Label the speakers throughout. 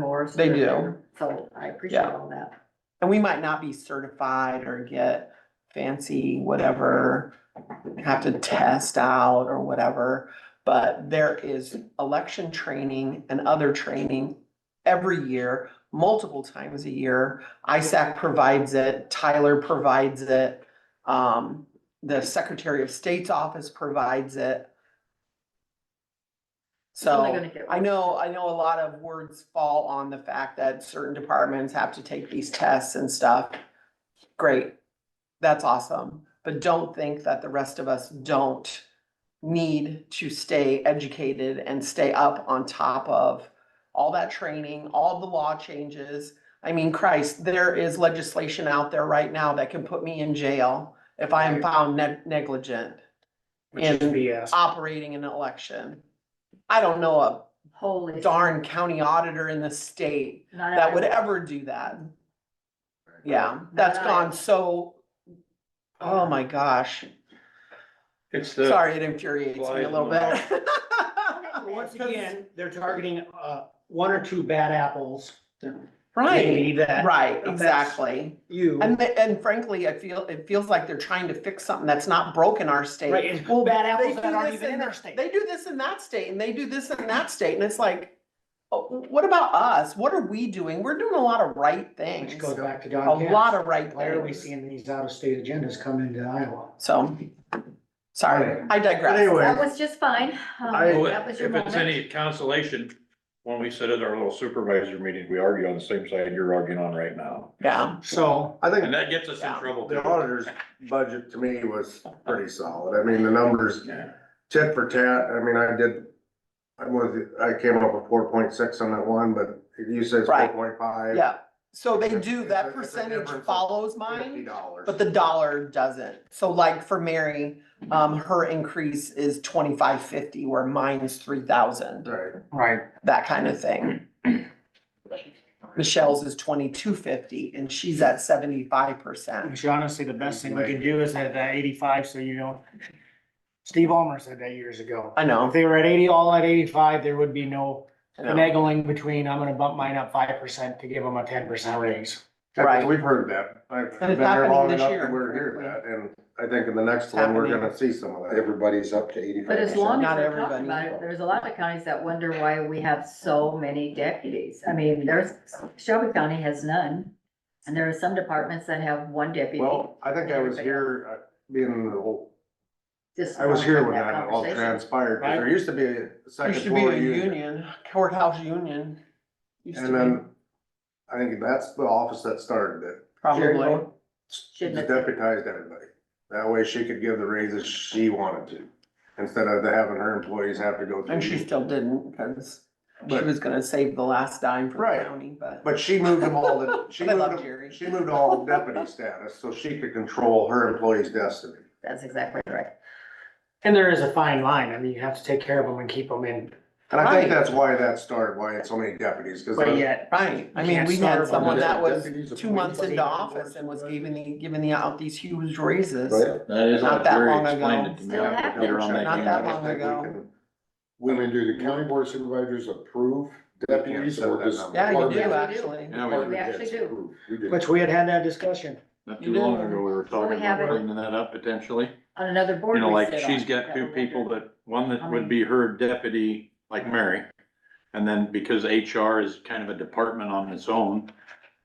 Speaker 1: course.
Speaker 2: They
Speaker 1: they're
Speaker 2: do.
Speaker 1: there. So I appreciate
Speaker 2: Yeah.
Speaker 1: all that.
Speaker 2: And we might not be certified or get fancy whatever, have to test out or whatever. But there is election training and other training every year, multiple times a year. ISAC provides it, Tyler provides it, um, the Secretary of State's office provides it.
Speaker 1: It's only
Speaker 2: So.
Speaker 1: gonna get
Speaker 2: I
Speaker 1: worse.
Speaker 2: know, I know a lot of words fall on the fact that certain departments have to take these tests and stuff. Great, that's awesome, but don't think that the rest of us don't need to stay educated and stay up on top of all that training, all the law changes. I mean, Christ, there is legislation out there right now that can put me in jail if I am found neg- negligent
Speaker 3: Which is
Speaker 2: And
Speaker 3: BS.
Speaker 2: operating an election. I don't know a
Speaker 1: Holy.
Speaker 2: darn county auditor in the state
Speaker 1: Not
Speaker 2: that would
Speaker 1: everyone.
Speaker 2: ever do that. Yeah, that's
Speaker 1: Not
Speaker 2: gone
Speaker 1: I.
Speaker 2: so, oh my gosh,
Speaker 3: It's the.
Speaker 2: sorry, it infuriates me a little bit.
Speaker 3: Once again, they're targeting, uh, one or two bad apples.
Speaker 2: Right,
Speaker 3: Maybe that.
Speaker 2: right, exactly.
Speaker 3: You.
Speaker 2: And, the- and frankly, I feel, it feels like they're trying to fix something that's not broken our
Speaker 3: Right,
Speaker 2: state.
Speaker 3: it's bad
Speaker 2: They
Speaker 3: apples
Speaker 2: do
Speaker 3: that aren't
Speaker 2: this
Speaker 3: even in
Speaker 2: in,
Speaker 3: our state.
Speaker 2: they do this in that state and they do this in that state and it's like, oh, what about us? What are we doing? We're doing a lot of right things.
Speaker 3: Which goes
Speaker 2: A
Speaker 3: back to Don. Cass.
Speaker 2: lot of right things.
Speaker 3: Why are we seeing these out-of-state agendas come into Iowa?
Speaker 2: So, sorry, I
Speaker 3: But anyway.
Speaker 2: digress.
Speaker 1: That was just fine. Um,
Speaker 4: I-
Speaker 2: Oh,
Speaker 1: That was your
Speaker 4: If it's
Speaker 1: moment.
Speaker 4: any consolation, when we sit at our little supervisor meetings, we argue on the same side you're arguing on right now.
Speaker 2: Yeah,
Speaker 3: So,
Speaker 4: And
Speaker 5: think
Speaker 4: that gets us in trouble.
Speaker 5: the
Speaker 4: too.
Speaker 5: auditor's budget to me was pretty solid. I mean, the numbers tit for tat, I mean, I did, I was, I came up with four point six on that one, but you said four
Speaker 2: Right.
Speaker 5: point five.
Speaker 2: yeah. So they do,
Speaker 5: It's a-
Speaker 2: that
Speaker 5: it's a
Speaker 2: percentage
Speaker 5: difference of
Speaker 2: follows
Speaker 5: Fifty
Speaker 2: mine,
Speaker 5: dollars.
Speaker 2: but the dollar doesn't. So like for Mary, um, her increase is twenty-five fifty where mine's three thousand,
Speaker 5: Right,
Speaker 3: right,
Speaker 2: that kind of thing. Michelle's is twenty-two fifty and she's at seventy-five percent.
Speaker 3: which honestly, the best thing we can do is at that eighty-five, so you don't. Steve Almer said that years ago.
Speaker 2: I
Speaker 3: If
Speaker 2: know,
Speaker 3: they were at eighty, all at eighty-five, there would be no
Speaker 2: I know.
Speaker 3: finagling between, I'm gonna bump mine up five percent to give them a ten percent raise.
Speaker 2: Right.
Speaker 5: That's- we've heard that. I've
Speaker 2: And
Speaker 5: been
Speaker 2: it's
Speaker 5: here
Speaker 2: happening
Speaker 5: long
Speaker 2: this
Speaker 5: enough
Speaker 2: year.
Speaker 5: to we're here that, and I think in the next one, we're
Speaker 2: happening.
Speaker 5: gonna see some of that. Everybody's up to eighty-five.
Speaker 1: But as long as
Speaker 2: Not
Speaker 1: we're talking about
Speaker 2: everybody.
Speaker 1: it, there's a lot of counties that wonder why we have so many deputies. I mean, there's, Shelby County has none. And there are some departments that have one deputy.
Speaker 5: Well, I think I was here, uh, being the whole
Speaker 1: Just
Speaker 5: I was here when
Speaker 1: wanna have
Speaker 5: that all
Speaker 1: conversation.
Speaker 5: transpired, 'cause there used to be a
Speaker 2: There
Speaker 5: second
Speaker 2: should be
Speaker 5: floor
Speaker 2: a
Speaker 5: union.
Speaker 2: union, courthouse union. Used to
Speaker 5: And
Speaker 2: be,
Speaker 5: then, I think that's the office that started it,
Speaker 2: probably.
Speaker 5: She
Speaker 1: Shouldn't have-
Speaker 5: deputized everybody. That way she could give the raises she wanted to, instead of having her employees have to go through.
Speaker 2: And she still didn't, because she
Speaker 5: But-
Speaker 2: was gonna save the last dime for the
Speaker 5: Right.
Speaker 2: county, but.
Speaker 5: But she moved them all, to- she
Speaker 2: I love
Speaker 5: moved,
Speaker 2: Jerry.
Speaker 5: them- she moved all to deputy status, so she could control her employees' destiny.
Speaker 1: That's exactly right.
Speaker 3: And there is a fine line, I mean, you have to take care of them and keep them in,
Speaker 5: And I think
Speaker 2: Right.
Speaker 5: that's why that started, why it's so many deputies, cause.
Speaker 3: but
Speaker 5: the-
Speaker 3: yet,
Speaker 2: Right, I
Speaker 3: You
Speaker 2: mean,
Speaker 3: can't
Speaker 2: we had
Speaker 3: starve on
Speaker 2: someone
Speaker 3: it.
Speaker 2: that was
Speaker 5: Deputies
Speaker 2: two months
Speaker 5: appointed.
Speaker 2: into office and was giving the, giving the out these huge raises.
Speaker 5: Right.
Speaker 4: That is
Speaker 2: Not
Speaker 4: what
Speaker 2: that
Speaker 4: Jerry
Speaker 2: long
Speaker 4: explained
Speaker 2: ago.
Speaker 4: it to me.
Speaker 1: Still
Speaker 4: I have to
Speaker 1: happening.
Speaker 4: get around that
Speaker 2: Not that
Speaker 4: game.
Speaker 2: long ago.
Speaker 6: Women, do the county board of supervisors approve deputies or does?
Speaker 2: Yeah, you
Speaker 1: Yeah, we
Speaker 2: do,
Speaker 1: do.
Speaker 2: actually.
Speaker 4: Oh, Yeah, we-
Speaker 1: We actually do.
Speaker 6: We do.
Speaker 3: which we had had that discussion.
Speaker 4: Not
Speaker 2: You
Speaker 4: too long
Speaker 2: do.
Speaker 4: ago, we were
Speaker 1: we
Speaker 4: talking
Speaker 1: have
Speaker 4: about
Speaker 1: it.
Speaker 4: bringing that up potentially.
Speaker 1: On another board.
Speaker 4: You know,
Speaker 1: we
Speaker 4: like
Speaker 1: sit
Speaker 4: she's
Speaker 1: on,
Speaker 4: got two
Speaker 1: we'll
Speaker 4: people
Speaker 1: do.
Speaker 4: that, one
Speaker 1: I
Speaker 4: that would be her deputy, like Mary. And then because HR is kind of a department on its own,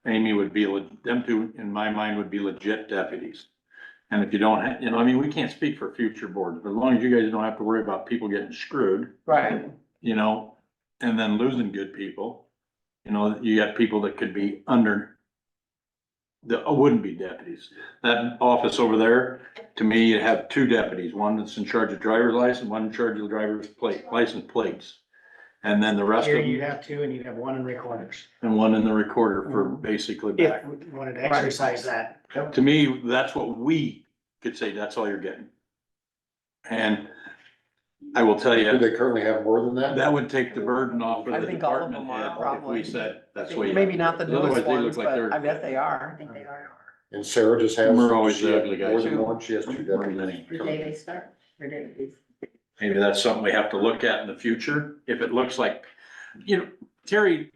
Speaker 4: Amy would be, le- them two, in my mind, would be legit deputies. And if you don't, ha- you know, I mean, we can't speak for future boards, but as long as you guys don't have to worry about people getting screwed,
Speaker 2: Right,
Speaker 4: you know, and then losing good people. You know, you got people that could be under, that wouldn't be deputies. That office over there, to me, you have two deputies, one that's in charge of driver's license, one in charge of driver's plate, license plates. And then the rest of
Speaker 3: Here you'd
Speaker 4: them,
Speaker 3: have two and you'd have one in recorders,
Speaker 4: and one in the recorder for basically
Speaker 3: if
Speaker 4: back.
Speaker 3: we wanted to exercise that.
Speaker 4: To me, that's what we could say, that's all you're getting. And I will tell you.
Speaker 6: Do they currently have more than that?
Speaker 4: That would take the burden off
Speaker 2: I
Speaker 4: of the
Speaker 2: think all of
Speaker 4: department
Speaker 2: them are,
Speaker 4: head if
Speaker 2: probably.
Speaker 4: we said, that's what you.
Speaker 2: maybe not the newest
Speaker 4: Otherwise, they
Speaker 2: ones,
Speaker 4: look like
Speaker 2: but
Speaker 4: they're-
Speaker 2: I bet they
Speaker 1: I
Speaker 2: are.
Speaker 1: think they are.
Speaker 6: And Sarah just has.
Speaker 4: We're always
Speaker 6: she
Speaker 4: the
Speaker 6: has
Speaker 4: ugly guys.
Speaker 6: More than
Speaker 2: Two.
Speaker 6: one, she has two deputies.
Speaker 1: The day they start, their deputies.
Speaker 4: Maybe that's something we have to look at in the future, if it looks like, you know, Terry